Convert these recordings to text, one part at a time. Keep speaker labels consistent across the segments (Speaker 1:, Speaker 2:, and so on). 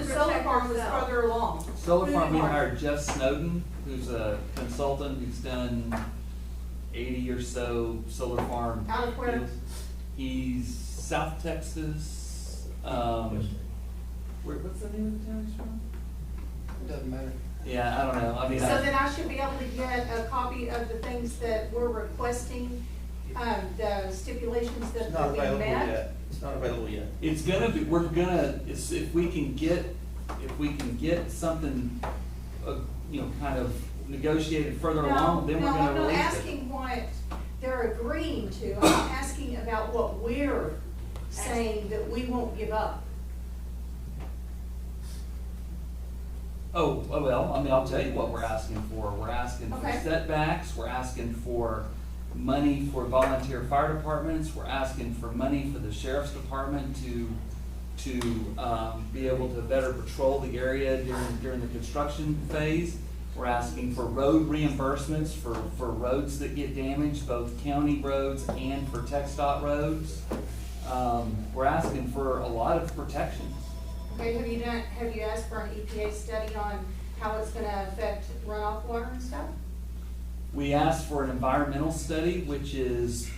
Speaker 1: farm was
Speaker 2: Sell.
Speaker 1: further along.
Speaker 3: Solar farm, we
Speaker 1: Moving farm.
Speaker 3: hired Jeff Snowden, who's a consultant who's done eighty or so solar farm.
Speaker 1: Out of where?
Speaker 3: deals. He's South Texas, um, where, what's the name of the town he's from?
Speaker 4: Doesn't matter.
Speaker 3: Yeah, I don't know, I mean,
Speaker 1: So then
Speaker 3: I,
Speaker 1: I should be able to get a copy of the things that we're requesting, um, the stipulations that
Speaker 4: It's not
Speaker 1: we
Speaker 4: available
Speaker 1: met.
Speaker 4: yet. It's not available yet.
Speaker 3: it's gonna be, we're gonna, it's, if we can get, if we can get something, uh, you know, kind of negotiated further along, then we're gonna
Speaker 1: No, no, I'm not
Speaker 3: release it.
Speaker 1: asking what they're agreeing to, I'm asking about what we're saying that we won't give up.
Speaker 3: Oh, oh, well, I mean, I'll tell you what we're asking for. We're asking for
Speaker 1: Okay.
Speaker 3: setbacks, we're asking for money for volunteer fire departments, we're asking for money for the sheriff's department to, to, um, be able to better patrol the area during, during the construction phase. We're asking for road reimbursements for, for roads that get damaged, both county roads and for Tech dot roads. Um, we're asking for a lot of protections.
Speaker 1: Okay, have you done, have you asked for an EPA study on how it's gonna affect runoff water and stuff?
Speaker 3: We asked for an environmental study, which is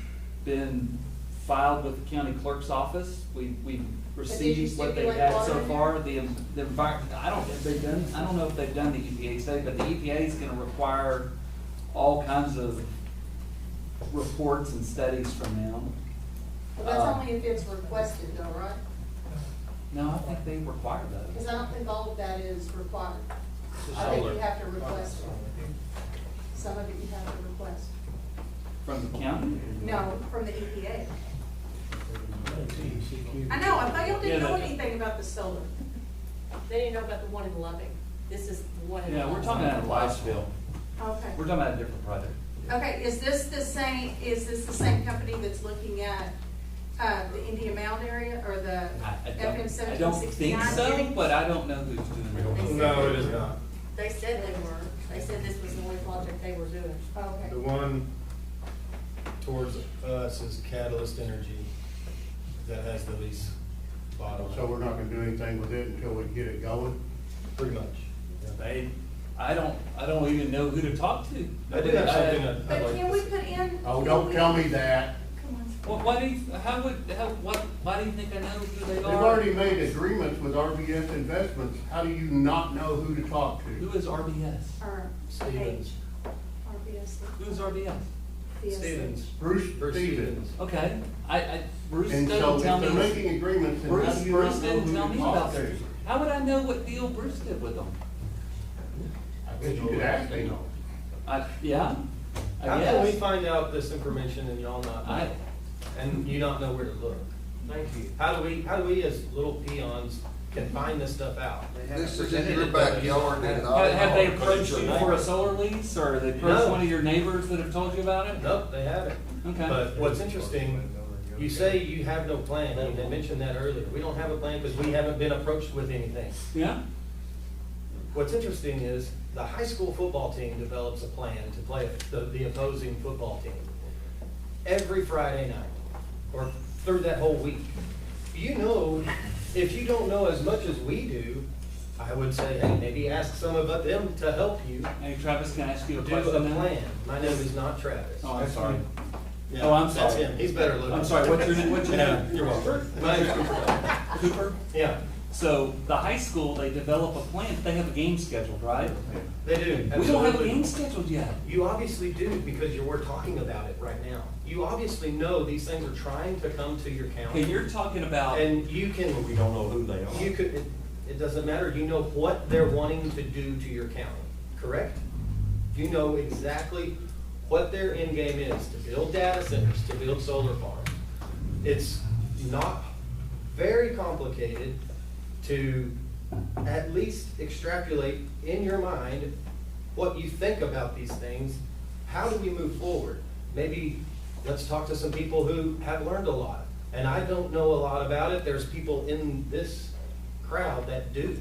Speaker 3: been filed with the county clerk's office. We, we received what they
Speaker 1: stipulate
Speaker 3: had
Speaker 1: water
Speaker 3: so
Speaker 1: in there?
Speaker 3: far, the, en- the envir, I don't, have they done, I don't know if they've done the EPA study, but the EPA is gonna require all kinds of reports and studies from them.
Speaker 1: Well, that's
Speaker 3: Uh,
Speaker 1: only if it's requested though, right?
Speaker 3: No, I think they require
Speaker 1: Because
Speaker 3: those.
Speaker 1: I don't think all of that is required.
Speaker 4: It's
Speaker 1: I think you
Speaker 4: solar.
Speaker 1: have to request it. Some of it you have to request.
Speaker 3: From the county?
Speaker 1: No, from the EPA. I know, I thought y'all didn't
Speaker 3: Yeah,
Speaker 1: know
Speaker 3: that-
Speaker 1: anything about the solar.
Speaker 2: They didn't know about the one in Loving. This is the one in.
Speaker 3: Yeah, we're
Speaker 2: Loving.
Speaker 3: talking about Liceville.
Speaker 1: Okay.
Speaker 3: We're talking about a different project.
Speaker 1: Okay, is this the same, is this the same company that's looking at, uh, the Indian Mound area or the
Speaker 3: I, I
Speaker 1: FM
Speaker 3: don't, I
Speaker 1: seventeen
Speaker 3: don't think
Speaker 1: sixty-nine?
Speaker 3: so, but I don't know who's doing it.
Speaker 5: No, it is not.
Speaker 2: They said they were. They said this was the only project they were doing.
Speaker 1: Okay.
Speaker 5: The one towards us is Catalyst Energy that has the least bottom.
Speaker 6: So we're not gonna do anything with it until we get it going?
Speaker 5: Pretty much.
Speaker 3: They, I don't, I don't even know who to talk to.
Speaker 5: I did have something that I'd
Speaker 1: But
Speaker 5: like
Speaker 1: can we
Speaker 5: to say.
Speaker 1: put in?
Speaker 6: Oh,
Speaker 1: can
Speaker 6: don't
Speaker 1: we-
Speaker 6: tell me that.
Speaker 3: Well, uh, why do you, how would, how, what, why do you think I know who they
Speaker 6: They've
Speaker 3: are?
Speaker 6: already made agreements with RBS Investments. How do you not know who to talk
Speaker 3: Who
Speaker 6: to?
Speaker 3: is RBS?
Speaker 1: Or
Speaker 5: Stevens.
Speaker 1: H, RBS,
Speaker 3: Who is RBS?
Speaker 1: BS.
Speaker 5: Stevens.
Speaker 6: Bruce Stevens.
Speaker 3: Okay, I, I, Bruce
Speaker 6: And so
Speaker 3: didn't
Speaker 6: if
Speaker 3: tell
Speaker 6: they're
Speaker 3: me,
Speaker 6: making agreements, then how
Speaker 3: Bruce,
Speaker 6: do you not
Speaker 3: Bruce
Speaker 6: know
Speaker 3: didn't tell
Speaker 6: who to
Speaker 3: me
Speaker 6: talk
Speaker 3: about
Speaker 6: to?
Speaker 3: this. How would I know what deal Bruce did with them?
Speaker 6: I bet you could ask them.
Speaker 3: I, yeah, I
Speaker 5: How can we
Speaker 3: guess.
Speaker 5: find out this information and y'all not know?
Speaker 3: I,
Speaker 5: And you not know where to look? Thank you. How do we, how do we as little peons can find this stuff out?
Speaker 7: This is in your backyard and all.
Speaker 3: have, have they approached
Speaker 5: Your
Speaker 3: you
Speaker 5: neighbor.
Speaker 3: for a solar lease, or they approached
Speaker 5: No.
Speaker 3: one of your neighbors that have told you about it?
Speaker 5: Nope, they haven't.
Speaker 3: Okay.
Speaker 5: But what's interesting, you say you have no plan, and I mentioned that earlier. We don't have a plan because we haven't been approached with anything.
Speaker 3: Yeah,
Speaker 5: What's interesting is the high school football team develops a plan to play the, the opposing football team every Friday night or through that whole week. You know, if you don't know as much as we do, I would say, hey, maybe ask some of them to help you
Speaker 3: hey Travis, can I ask you a
Speaker 5: do a
Speaker 3: question now?
Speaker 5: plan. My name is not Travis.
Speaker 3: Oh, I'm sorry.
Speaker 5: Yeah,
Speaker 3: Oh, I'm
Speaker 5: That's
Speaker 3: sorry.
Speaker 5: him. He's better looking.
Speaker 3: I'm sorry, what's your, na- what's your
Speaker 5: Yeah,
Speaker 3: name?
Speaker 5: you're welcome. My name's Cooper.
Speaker 3: Cooper?
Speaker 5: Yeah,
Speaker 3: So the high school, they develop a plan, they have a game scheduled, right?
Speaker 5: they do.
Speaker 3: We don't have a
Speaker 5: absolutely.
Speaker 3: game scheduled yet.
Speaker 5: You obviously do because you're, we're talking about it right now. You obviously know these things are trying to come to your
Speaker 3: Okay,
Speaker 5: county.
Speaker 3: you're talking about,
Speaker 5: And you can,
Speaker 7: We don't know who they
Speaker 5: you
Speaker 7: are.
Speaker 5: could, it, it doesn't matter. You know what they're wanting to do to your county, correct? You know exactly what their end game is, to build data centers, to build solar farms. It's not very complicated to at least extrapolate in your mind what you think about these things. How do we move forward? Maybe let's talk to some people who have learned a lot. And I don't know a lot about it. There's people in this crowd that do.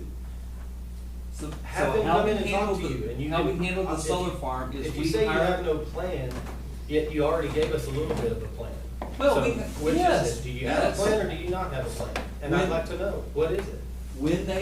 Speaker 3: so so
Speaker 5: Have them
Speaker 3: how
Speaker 5: come
Speaker 3: we
Speaker 5: in and
Speaker 3: handle
Speaker 5: talk to you and
Speaker 3: the,
Speaker 5: you.
Speaker 3: how
Speaker 5: can-
Speaker 3: we handle the
Speaker 5: if
Speaker 3: solar
Speaker 5: you-
Speaker 3: farm is
Speaker 5: If you
Speaker 3: we
Speaker 5: say you have
Speaker 3: hire.
Speaker 5: no plan, yet you already gave us a little bit of a plan.
Speaker 3: Well,
Speaker 5: So,
Speaker 3: we-
Speaker 5: which is
Speaker 3: yes,
Speaker 5: it? Do you have a
Speaker 3: yes.
Speaker 5: plan or do you not have a plan? And I'd
Speaker 3: When-
Speaker 5: like to know, what is it?
Speaker 3: When they